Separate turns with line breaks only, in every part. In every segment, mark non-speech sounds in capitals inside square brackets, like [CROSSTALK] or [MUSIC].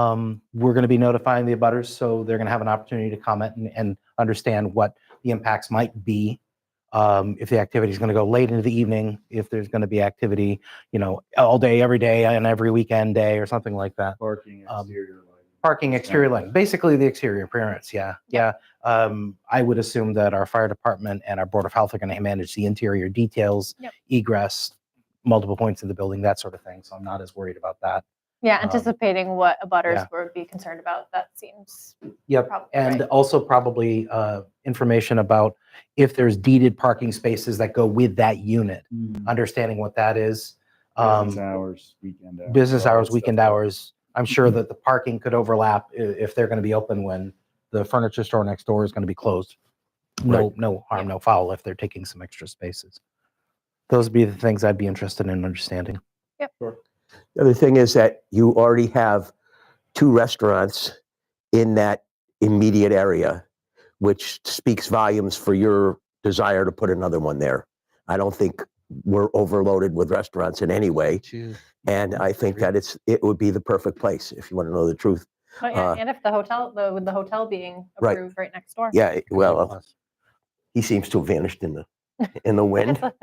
Um, We're going to be notifying the abutters, so they're going to have an opportunity to comment and, and understand what the impacts might be. Um, If the activity is going to go late into the evening, if there's going to be activity, you know, all day, every day, and every weekend day or something like that.
Parking
Um,
exterior lighting.
Parking exterior
Yeah.
lighting, basically the exterior appearance, yeah, yeah. Um, I would assume that our fire department and our board of health are gonna manage the interior details,
Yep.
egress, multiple points in the building, that sort of thing, so I'm not as worried about that.
Yeah,
Um,
anticipating what abutters
yeah.
would be concerned about, that seems,
Yep,
Probably,
and
right.
also probably, uh, information about if there's deeded parking spaces that go with that unit, understanding what that is.
Business
mm, Um,
hours, weekend hours.
business
all that
hours,
stuff.
weekend hours, I'm sure that the parking could overlap i- if they're gonna be open when the furniture store next door is gonna be closed. No, no harm, no foul if they're taking some extra spaces. Those would be the things I'd be interested in understanding.
The other thing is that you already have two restaurants in that immediate area, which speaks volumes for your desire to put another one there. I don't think we're overloaded with restaurants in any way. And I think that it's, it would be the perfect place, if you want to know the truth.
but yeah,
Uh,
and if the hotel, the- with the hotel being
Right.
approved right next door.
Yeah, it- well,
uh,
he seems to have vanished in the, in the
[LAUGHS]
wind.
That's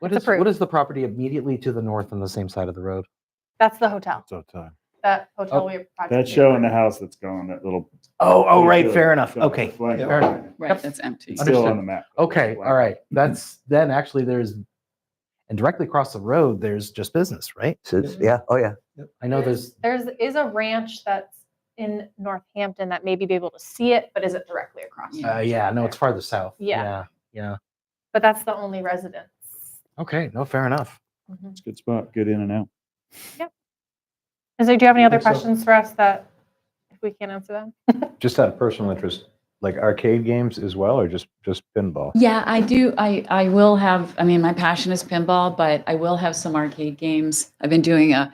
What
It's
is, what
approved.
is the property immediately to the north on the same side of the road?
that's the hotel,
So time.
that hotel we.
That's showing the house that's gone, that little.
Oh, oh, right,
the-
fair enough,
the- the
okay.
flag.
fair enough.
Right, that's empty.
It's still
Understood.
on the map.
Okay,
Flag.
all right, that's, then actually there's, and directly across the road, there's just business, right?
So it's- Yeah, oh, yeah.
I know there's,
There's, is a ranch that's in Northampton that maybe be able to see it, but is it directly across?
Yeah.
uh, yeah, no, it's farther south.
Yeah.
Yeah,
But that's the only residence.
yeah. okay, no, fair enough.
Mhm.
It's a good spot, good in and out.
And so do you have any other
think so.
questions for us that, if we can't answer them?
Just out of personal interest, like arcade games as well, or just, just pinball?
Yeah, I do. I, I will have, I mean, my passion is pinball, but I will have some arcade games. I've been doing a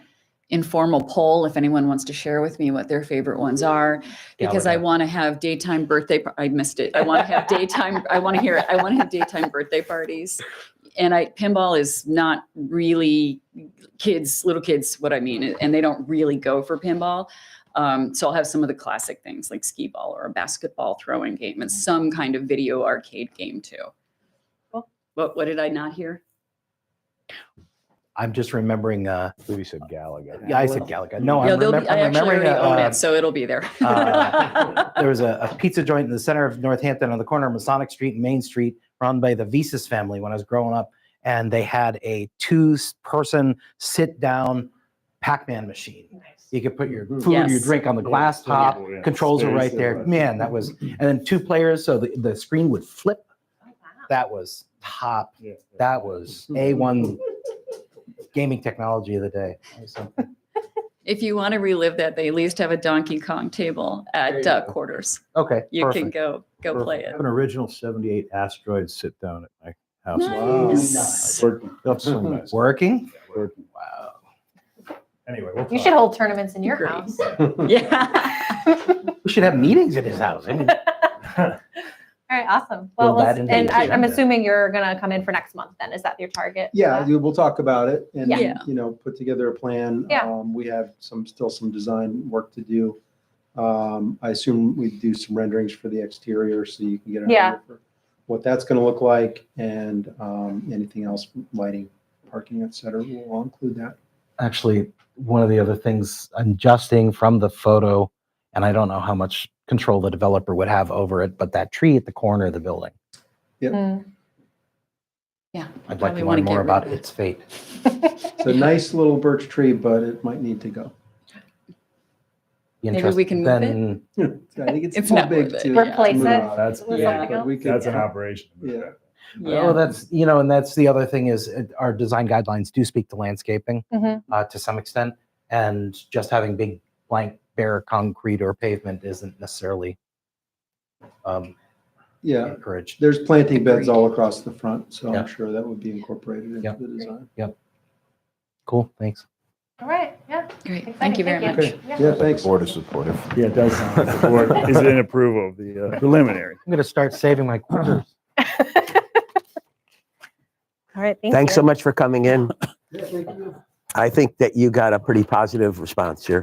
informal poll if anyone wants to share with me what their favorite ones are, because I
Gallagher.
want to have daytime birthday, par- I missed it. I want to
[LAUGHS]
have daytime, I want to hear it. I want to have daytime birthday parties. And I, pinball is not really kids, little kids, what I mean, and they don't really go for pinball. Um, so I'll have some of the classic things like skee ball or a basketball throwing game and some kind of video arcade game too.
Cool.
What, what did I not hear?
I'm just remembering. Uh,
I believe you said Gallagher.
yeah, I said Galaga. No, Oh, I'm,
No, they'll
remem-
be, I
I'm
actually
remembering.
already
A,
own
uh,
it, so it'll be there.
[LAUGHS] uh, [LAUGHS] there was a, a pizza joint in the center of Northampton on the corner of Masonic Street and Main Street, run by the Visas family when I was growing up, and they had a two-person sit-down Pac-Man machine. You could put your food, your
Yes.
drink on the glass top. Controls are right there. Man, that was, and then two players, so the, the screen would flip.
Oh,
That was top. That was A1 gaming technology of the day. That was something.
[LAUGHS] If you want to relive that, they at least have a Donkey Kong table at uh, quarters.
Okay.
You can go, go play
I
it.
have an original 78 asteroid sit down at my house.
Wow.
Nice. Working,
That's so nice.
Working?
working.
Wow.
Anyway, we'll
You
talk.
should hold tournaments in your
Great.
house.
Yeah.
We should have meetings at his house. I mean,
All right, awesome.
Build
Well,
that
let's-
into
and
the
I- I'm
agenda.
assuming you're gonna come in for next month then. Is that your target? for
Yeah,
that?
we- we'll talk about it and,
Yeah. Yeah.
you know, put together a plan.
Yeah.
Um, We have some, still some design work to do. Um, I assume we do some renderings for the exterior so you can get an
Yeah.
idea for what that's going to look like and um, anything else, lighting, parking, et cetera. We'll all include that.
Actually, one of the other things, adjusting from the photo, and I don't know how much control the developer would have over it, but that tree at the corner of the building,
Mm.
Yeah.
I'd like
Probably
to
wanna
learn
get
more
rid
about
of it.
its fate.
It's a nice little birch tree, but it might need to go. [LAUGHS]
Be
Maybe we
interested-
can move it?
then-
I think it's
It's
too
not
big
worth it,
to.
yeah.
to
Replace
move
it
on.
That's,
with
Yeah.
something
But
else.
we could,
that's an
yeah.
operation.
Yeah.
Oh,
Yeah.
that's, you know, and that's the other thing is uh, our design guidelines do speak to landscaping.
Mhm.
uh, to some extent. And just having big blank bare concrete or pavement isn't necessarily um,
Yeah.
encouraged.
There's planting beds all across the front, so
Yeah.
I'm sure that would be incorporated into
Yep.
the design.
Cool, thanks.
All right, yeah.
Great. Thank
exciting.
you very
Thank
much.
Yeah.
Yeah, thanks.
Board is supportive.
Yeah, it does sound like the board is in approval
[LAUGHS]
of the uh, preliminary.
I'm going to start saving my quarters.
All right, thank you.
Thanks so much for coming in. I think that you got a pretty positive response here.